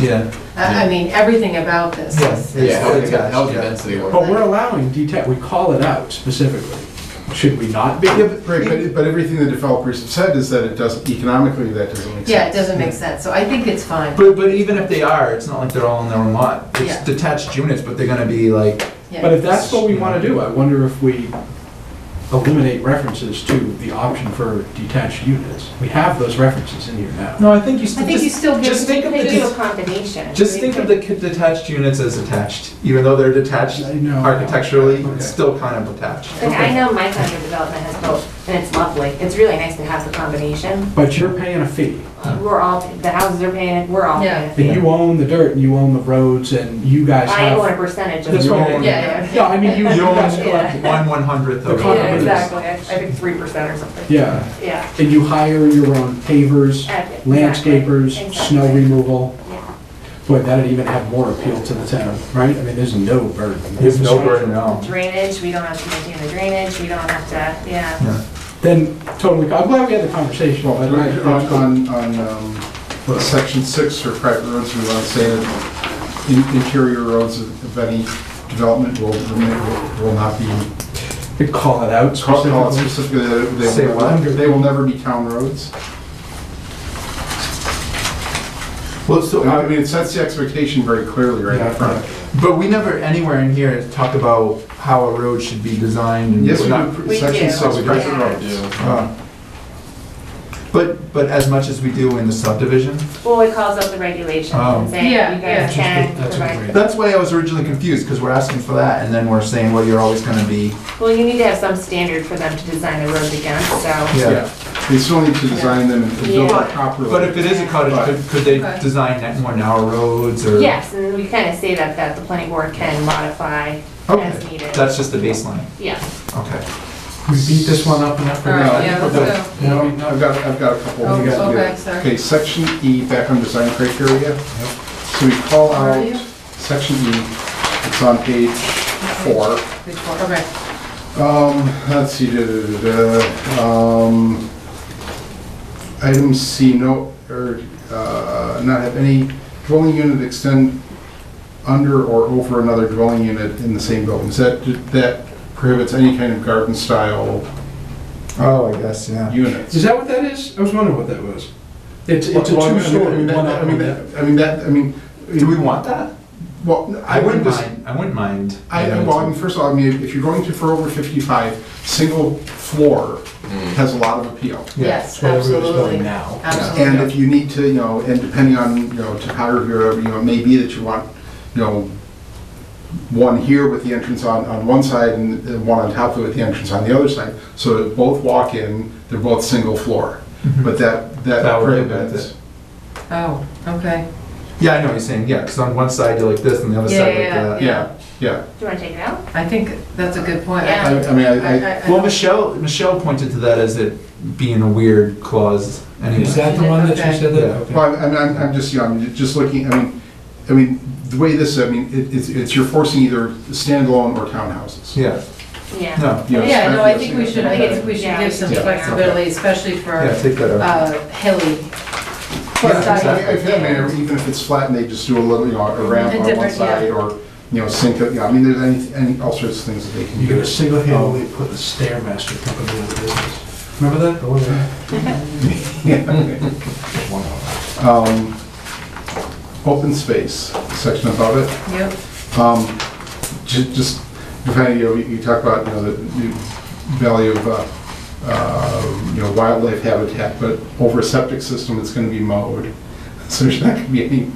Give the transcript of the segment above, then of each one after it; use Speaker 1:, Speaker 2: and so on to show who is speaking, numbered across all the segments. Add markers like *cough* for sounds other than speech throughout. Speaker 1: Yeah,
Speaker 2: I I mean, everything about this is-
Speaker 1: Yeah,
Speaker 2: is,
Speaker 1: yeah. yeah.
Speaker 3: Health health density. one.
Speaker 4: But we're allowing DTEC, we call it out specifically. Should we not be?
Speaker 5: Yeah, but, right, but, but everything the developers have said is that it doesn't, economically, that doesn't make sense.
Speaker 2: yeah, it doesn't make sense, so I think it's fine,
Speaker 3: But, but even if they are, it's not like they're all in their own lot.
Speaker 2: Yeah.
Speaker 3: It's detached units, but they're gonna be like,
Speaker 2: yeah.
Speaker 4: But if that's what we want to do, I wonder if we eliminate references to the option for detached units. We have those references in here now.
Speaker 3: no, I think you
Speaker 2: I
Speaker 3: still,
Speaker 2: think you
Speaker 3: just,
Speaker 2: still
Speaker 3: just
Speaker 2: give,
Speaker 3: think of the,
Speaker 6: They do a
Speaker 3: det-
Speaker 6: combination.
Speaker 3: just think of the c- detached units as attached, even though they're detached
Speaker 4: I know.
Speaker 3: architecturally,
Speaker 4: Okay.
Speaker 3: it's still kind of attached.
Speaker 6: Like, I know my kind of development has both, and it's lovely. It's really nice to have the combination.
Speaker 4: But you're paying a fee,
Speaker 3: Uh-huh.
Speaker 6: We're all, the houses are paying, it, we're all paying.
Speaker 2: Yeah.
Speaker 6: a fee.
Speaker 4: and you own the dirt, and you own the roads, and you guys
Speaker 6: I own a
Speaker 4: have.
Speaker 6: percentage of
Speaker 4: That's
Speaker 6: it.
Speaker 4: what I
Speaker 3: own-
Speaker 4: mean.
Speaker 2: Yeah, yeah.
Speaker 4: No, I
Speaker 6: *laughs*
Speaker 4: mean, you you
Speaker 3: You
Speaker 4: guys
Speaker 3: own
Speaker 4: collect.
Speaker 3: one one hundredth
Speaker 4: The
Speaker 3: of.
Speaker 4: condo
Speaker 6: Yeah,
Speaker 4: is.
Speaker 6: exactly. I I think three percent or something.
Speaker 4: Yeah,
Speaker 6: Yeah.
Speaker 4: and you hire your own pavers,
Speaker 6: Exactly.
Speaker 4: landscapers, snow
Speaker 6: Exactly.
Speaker 4: removal.
Speaker 6: Yeah.
Speaker 4: Boy, that'd even have more appeal to the town, right? I mean, there's no burden.
Speaker 3: There's no burden at all.
Speaker 6: Drainage, we don't have to maintain the drainage, we don't have to, yeah.
Speaker 3: Yeah.
Speaker 4: Then, totally, I'm glad we had the conversation.
Speaker 5: Well,
Speaker 4: but I-
Speaker 5: on, on, on, um, well, section six for private roads, we want to say that in- interior roads of of any development will, remain- will not be,
Speaker 4: They call it out
Speaker 5: call call it
Speaker 4: specifically.
Speaker 5: specifically, that it- they
Speaker 3: Say
Speaker 5: will
Speaker 3: what?
Speaker 5: never- they will never be town roads.
Speaker 3: Well, so,
Speaker 5: I
Speaker 4: Uh,
Speaker 5: mean, it sets the expectation very clearly right
Speaker 4: Yeah.
Speaker 5: in front.
Speaker 3: but we never anywhere in here talk about how a road should be designed and
Speaker 5: Yes, we
Speaker 3: whatnot.
Speaker 5: do,
Speaker 6: We
Speaker 5: section
Speaker 6: do.
Speaker 5: six, private
Speaker 6: Yeah.
Speaker 5: roads.
Speaker 3: Uh, But, but as much as we do in the subdivision,
Speaker 6: Well, it calls up the regulations
Speaker 3: Oh.
Speaker 6: and saying,
Speaker 2: Yeah,
Speaker 6: you guys
Speaker 2: yeah.
Speaker 6: can
Speaker 4: That's what-
Speaker 6: provide.
Speaker 3: that's why I was originally confused, because we're asking for that, and then we're saying, well, you're always gonna be,
Speaker 6: Well, you need to have some standard for them to design the roads against, so.
Speaker 3: yeah.
Speaker 5: Yeah, they still need to design them and build
Speaker 6: Yeah.
Speaker 5: them properly.
Speaker 3: But if it is a cottage, could, could they
Speaker 2: Okay.
Speaker 3: design that more narrow roads, or?
Speaker 6: Yes, and we kind of say that, that the planning board can modify as
Speaker 3: Okay,
Speaker 6: needed.
Speaker 3: that's just the baseline,
Speaker 6: Yeah.
Speaker 3: okay.
Speaker 4: We beat this one up enough for
Speaker 2: All
Speaker 4: now.
Speaker 2: right, yeah,
Speaker 3: we're done.
Speaker 2: so,
Speaker 5: No, I've got, I've got a couple.
Speaker 2: Oh,
Speaker 5: we gotta do.
Speaker 2: okay, sorry.
Speaker 5: Okay, section E, back on design criteria. So we call
Speaker 2: Where are
Speaker 5: out
Speaker 2: you?
Speaker 5: section E, it's on page four.
Speaker 2: okay,
Speaker 5: Um, let's see, da, da, da, da, um, item C, no, or, uh, not have any dwelling unit extend under or over another dwelling unit in the same building. Is that, that prohibits any kind of garden style
Speaker 3: Oh, I guess, yeah.
Speaker 5: units?
Speaker 4: Is that what that is? I was wondering what that was. It's, it's a
Speaker 5: Well, I mean, I
Speaker 4: two-story,
Speaker 5: mean,
Speaker 4: one
Speaker 5: that- I mean,
Speaker 4: up.
Speaker 5: that, I mean, that, I mean.
Speaker 3: Do we want that?
Speaker 5: Well,
Speaker 3: I wouldn't
Speaker 5: just-
Speaker 3: mind, I wouldn't mind.
Speaker 5: I,
Speaker 3: you know,
Speaker 5: I- well, I mean, first of all, I mean, if you're going to for over fifty-five, single floor has a lot of appeal.
Speaker 3: Yeah,
Speaker 2: yes,
Speaker 4: where the road is
Speaker 2: absolutely.
Speaker 4: going now.
Speaker 2: Absolutely.
Speaker 5: And if you need to, you know, and depending on, you know, topography or whatever, you know, it may be that you want, you know, one here with the entrance on, on one side and the one on top of it with the entrance on the other side, so that both walk in, they're both single floor.
Speaker 3: Mhm.
Speaker 5: But that,
Speaker 3: That
Speaker 5: that
Speaker 3: would be
Speaker 5: prohibits.
Speaker 2: Oh, okay.
Speaker 3: Yeah, I know what you're saying, yeah, because on one side you're like this, and the other
Speaker 2: Yeah,
Speaker 3: side like
Speaker 2: yeah,
Speaker 3: that.
Speaker 2: yeah.
Speaker 5: Yeah, yeah.
Speaker 6: Do you want to take it out?
Speaker 2: I think that's a good point. I-
Speaker 6: Yeah.
Speaker 5: I, I mean,
Speaker 2: I-
Speaker 5: I, I,
Speaker 2: I- I-
Speaker 3: Well, Michelle, Michelle pointed to that as it being a weird clause anyway.
Speaker 4: Is that the one that
Speaker 2: Okay.
Speaker 4: you said
Speaker 3: Yeah.
Speaker 4: that? Okay.
Speaker 5: Well, I'm, I'm, I'm just, you know, I'm just looking, I mean, I mean, the way this, I mean, it, it's, it's, you're forcing either standalone or townhouses.
Speaker 3: Yeah,
Speaker 6: Yeah.
Speaker 3: no,
Speaker 5: You know,
Speaker 2: Yeah, no, I
Speaker 5: especially-
Speaker 2: think we should, I think we should give some
Speaker 5: Yeah.
Speaker 2: flexibility, especially for
Speaker 3: yeah, take that out.
Speaker 2: uh, hilly.
Speaker 5: Yeah,
Speaker 2: Plus, I-
Speaker 5: I- I feel, I mean, even if it's flat and they just do a little, you know, a ramp
Speaker 2: A
Speaker 5: on one
Speaker 2: different, yeah.
Speaker 5: side or, you know, sink it, yeah, I mean, there's any, any, all sorts of things that they can
Speaker 4: You're
Speaker 5: do.
Speaker 4: gonna single-handedly put the Stairmaster company out of business. Oh, Remember that?
Speaker 5: Um, Open space section about it.
Speaker 2: Yep.
Speaker 5: Um, ju- Just, if I, you know, you you talk about, you know, the the value of, uh, uh, you know, wildlife habitat, but over a septic system, it's gonna be mowed. *laughs* So there's not gonna be any,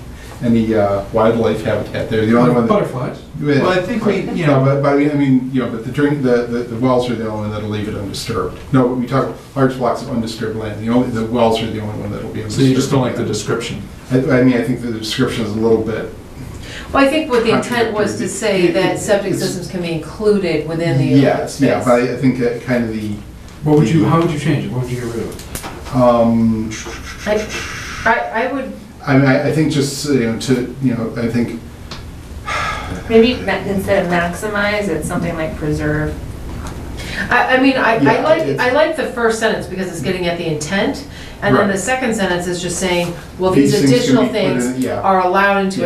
Speaker 5: any uh, wildlife habitat there. The only one that.
Speaker 4: Butterflies.
Speaker 3: Well, I think we, you
Speaker 5: No,
Speaker 3: know,
Speaker 5: but, but I mean- I mean, you know, but the drink, the, the the wells are the only one that'll leave it undisturbed. No, we talk large blocks of undisturbed land, the only, the wells are the only one that'll be undisturbed.
Speaker 3: so you just don't like the description.
Speaker 5: I, I mean, I think the description is a little bit,
Speaker 2: Well, I think what the intent was to say that septic
Speaker 5: It's-
Speaker 2: systems can be included within the.
Speaker 5: yes, yeah, but
Speaker 2: space.
Speaker 5: I I think that kind of the,
Speaker 4: What would you, how would you change it? What would you get rid of?
Speaker 5: um,
Speaker 2: I, I would,
Speaker 5: I mean, I, I think just, you know, to, you know, I think,
Speaker 6: Maybe ma- instead of maximize, it's something like preserve.
Speaker 2: I, I mean, I, I
Speaker 5: Yeah,
Speaker 2: like,
Speaker 5: it's-
Speaker 2: I like the first sentence because it's getting at the intent. And then
Speaker 5: Right.
Speaker 2: the second sentence is just saying, well, these
Speaker 5: These things can
Speaker 2: additional
Speaker 5: be put in-
Speaker 2: things
Speaker 5: yeah.
Speaker 2: are allowed into